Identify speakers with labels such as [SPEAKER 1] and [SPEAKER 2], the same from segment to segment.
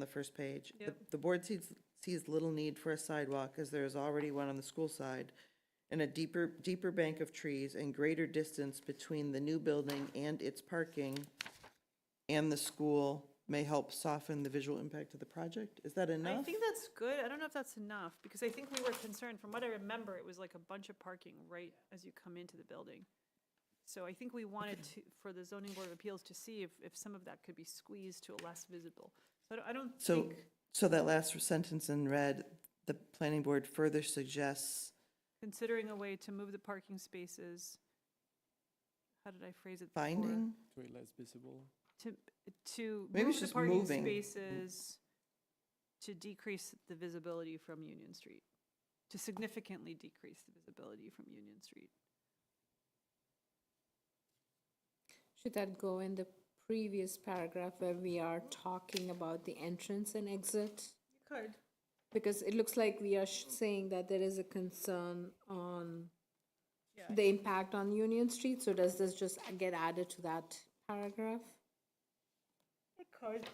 [SPEAKER 1] the first page. The-
[SPEAKER 2] Yep.
[SPEAKER 1] The board sees, sees little need for a sidewalk as there is already one on the school side and a deeper, deeper bank of trees and greater distance between the new building and its parking and the school may help soften the visual impact of the project. Is that
[SPEAKER 2] I
[SPEAKER 1] enough?
[SPEAKER 2] think that's good. I don't know if that's enough, because I think we were concerned, from what I remember, it was like a bunch of parking right as you come into the building. So I think we wanted to, for the zoning board of appeals to see if, if some of that could be squeezed to a less visible. So I don't- I don't
[SPEAKER 1] So,
[SPEAKER 2] think
[SPEAKER 1] so that last sentence in red, the planning board further suggests
[SPEAKER 2] considering a way to move the parking spaces, how did I phrase it? before?
[SPEAKER 1] finding?
[SPEAKER 3] to a less visible.
[SPEAKER 2] To, to
[SPEAKER 1] Maybe
[SPEAKER 2] move
[SPEAKER 1] it's
[SPEAKER 2] the
[SPEAKER 1] just
[SPEAKER 2] parking
[SPEAKER 1] moving.
[SPEAKER 2] spaces to decrease the visibility from Union Street, to significantly decrease the visibility from Union Street.
[SPEAKER 4] Should that go in the previous paragraph where we are talking about the entrance and exit?
[SPEAKER 2] Could.
[SPEAKER 4] Because it looks like we are sh- saying that there is a concern on
[SPEAKER 2] Yeah,
[SPEAKER 4] the impact on Union Street, so does this just get added to that paragraph?
[SPEAKER 2] It could.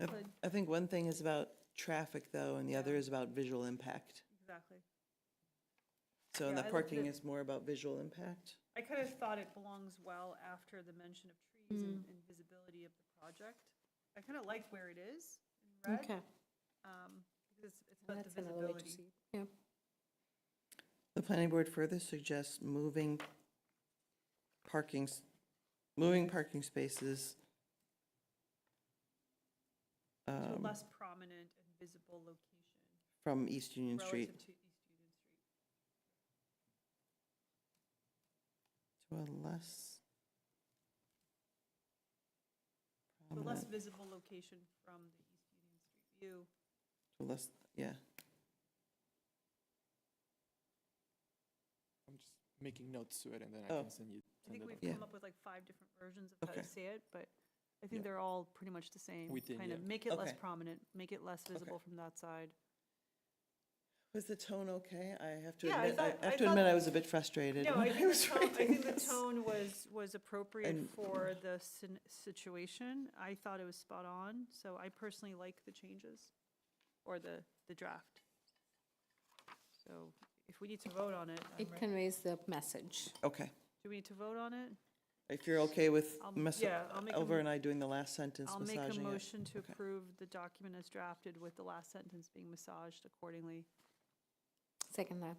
[SPEAKER 1] I- I think one thing is about traffic though, and the other is about visual impact.
[SPEAKER 2] exactly.
[SPEAKER 1] So and
[SPEAKER 2] Yeah,
[SPEAKER 1] the
[SPEAKER 2] I looked
[SPEAKER 1] parking
[SPEAKER 2] at-
[SPEAKER 1] is more about visual impact.
[SPEAKER 2] I kind of thought it belongs well after the mention of trees and and visibility of the project. I kind of like where it is in red.
[SPEAKER 4] Okay,
[SPEAKER 2] um, Because it's- it's about the
[SPEAKER 4] that's another way to
[SPEAKER 2] visibility.
[SPEAKER 4] see. it. Yeah,
[SPEAKER 1] The planning board further suggests moving parking, s- moving parking spaces.
[SPEAKER 2] To a
[SPEAKER 1] um,
[SPEAKER 2] less prominent and visible location
[SPEAKER 1] From East Union Street
[SPEAKER 2] relative to East Union Street.
[SPEAKER 1] to a less.
[SPEAKER 2] The less
[SPEAKER 1] prominent-
[SPEAKER 2] visible location from the East Union Street view.
[SPEAKER 1] to less, yeah.
[SPEAKER 3] I'm just making notes to it and then
[SPEAKER 1] Oh.
[SPEAKER 3] I can send
[SPEAKER 2] I
[SPEAKER 3] you. send
[SPEAKER 2] think
[SPEAKER 3] it
[SPEAKER 2] we've
[SPEAKER 3] over.
[SPEAKER 2] come up with like five different versions of how to
[SPEAKER 1] Okay.
[SPEAKER 2] say it, but I think
[SPEAKER 3] Yeah.
[SPEAKER 2] they're all pretty much the same.
[SPEAKER 3] We did,
[SPEAKER 2] Kind of
[SPEAKER 3] yeah.
[SPEAKER 2] make it less
[SPEAKER 1] Okay.
[SPEAKER 2] prominent, make it less visible from that side.
[SPEAKER 1] Was the tone okay? I have to
[SPEAKER 2] Yeah, I
[SPEAKER 1] admit, I
[SPEAKER 2] thought- I
[SPEAKER 1] have to
[SPEAKER 2] thought-
[SPEAKER 1] admit I was a bit frustrated.
[SPEAKER 2] No,
[SPEAKER 1] when
[SPEAKER 2] I think
[SPEAKER 1] was
[SPEAKER 2] the tone, I
[SPEAKER 1] reading
[SPEAKER 2] think the
[SPEAKER 1] this.
[SPEAKER 2] tone was, was appropriate
[SPEAKER 1] And-
[SPEAKER 2] for the sin- situation. I thought it was spot on, so I personally like the changes or the, the draft. So if we need to vote on it, I'm
[SPEAKER 4] it
[SPEAKER 2] re-
[SPEAKER 4] conveys the message.
[SPEAKER 1] Okay,
[SPEAKER 2] do we need to vote on it?
[SPEAKER 1] if you're okay with
[SPEAKER 2] I'll-
[SPEAKER 1] mess,
[SPEAKER 2] yeah, I'll make a
[SPEAKER 1] Elver
[SPEAKER 2] mo-
[SPEAKER 1] and I doing the last sentence,
[SPEAKER 2] I'll make a
[SPEAKER 1] massaging it.
[SPEAKER 2] motion to
[SPEAKER 1] Okay.
[SPEAKER 2] approve the document as drafted with the last sentence being massaged accordingly.
[SPEAKER 4] Second uh, that,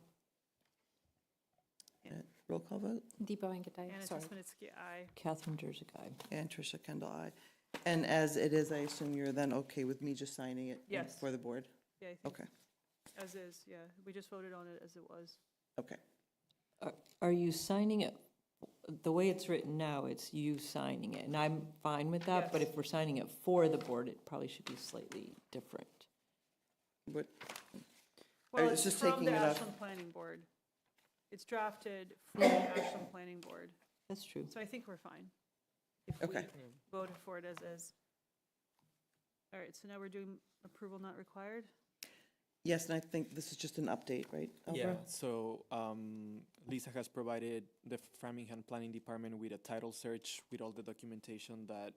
[SPEAKER 1] Yeah. Roll call vote,
[SPEAKER 4] Deepa Venkatesha,
[SPEAKER 2] Anna
[SPEAKER 4] sorry.
[SPEAKER 2] Tesmanitsky, aye.
[SPEAKER 5] Catherine Jersey guy.
[SPEAKER 1] and Tricia Kendall, aye. And as it is, I assume you're then okay with me just signing it? in-
[SPEAKER 2] Yes.
[SPEAKER 1] For the board?
[SPEAKER 2] Yeah, I think
[SPEAKER 1] Okay,
[SPEAKER 2] as is, yeah. We just voted on it as it was.
[SPEAKER 1] okay.
[SPEAKER 5] Are- uh, Are you signing it, the way it's written now, it's you signing it, and I'm fine with that, but
[SPEAKER 2] Yes.
[SPEAKER 5] if we're signing it for the board, it probably should be slightly different.
[SPEAKER 1] What,
[SPEAKER 2] Well,
[SPEAKER 1] was
[SPEAKER 2] it's
[SPEAKER 1] just
[SPEAKER 2] from
[SPEAKER 1] taking
[SPEAKER 2] the
[SPEAKER 1] it off-
[SPEAKER 2] Ashland Planning Board. It's drafted from the Ashland Planning Board,
[SPEAKER 5] That's true.
[SPEAKER 2] so I think we're fine. if we
[SPEAKER 1] Okay.
[SPEAKER 2] Vote for it as is. All right, so now we're doing approval not required?
[SPEAKER 1] yes, and I think this is just an update, right? Elver?
[SPEAKER 3] Yeah, so um, Lisa has provided the Framingham Planning Department with a title search with all the documentation that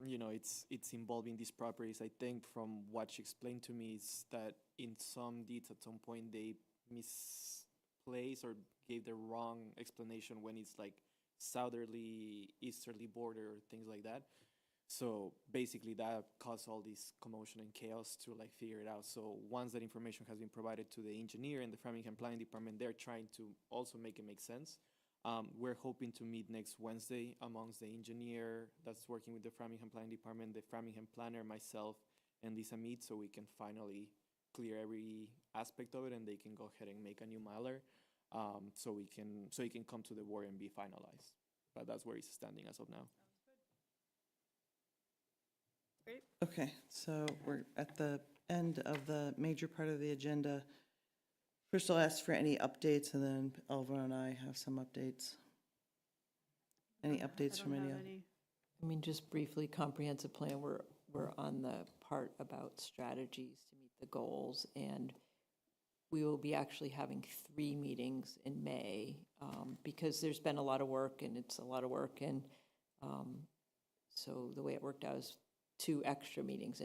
[SPEAKER 3] you know it's it's involving these properties. I think from what she explained to me is that in some deeds at some point they misplaced or gave the wrong explanation when it's like southerly, easterly border or things like that. So basically, that caused all this commotion and chaos to like figure it out. So once that information has been provided to the engineer and the Framingham Planning Department, they're trying to also make it make sense. Um, we're hoping to meet next Wednesday amongst the engineer that's working with the Framingham Planning Department, the Framingham planner, myself, and Lisa meet so we can finally clear every aspect of it and they can go ahead and make a new miler. Um, so we can so it can come to the board and be finalized. But that's where it's standing as of now.
[SPEAKER 1] Okay, so we're at the end of the major part of the agenda. First, I'll ask for any updates, and then Elver and I have some updates. Any updates from any
[SPEAKER 2] I don't have
[SPEAKER 1] other?
[SPEAKER 2] any.
[SPEAKER 5] I mean, just briefly, comprehensive plan, we're, we're on the part about strategies to meet the goals, and we will be actually having three meetings in May, um, because there's been a lot of work, and it's a lot of work, and, um, so the way it worked out is two extra meetings in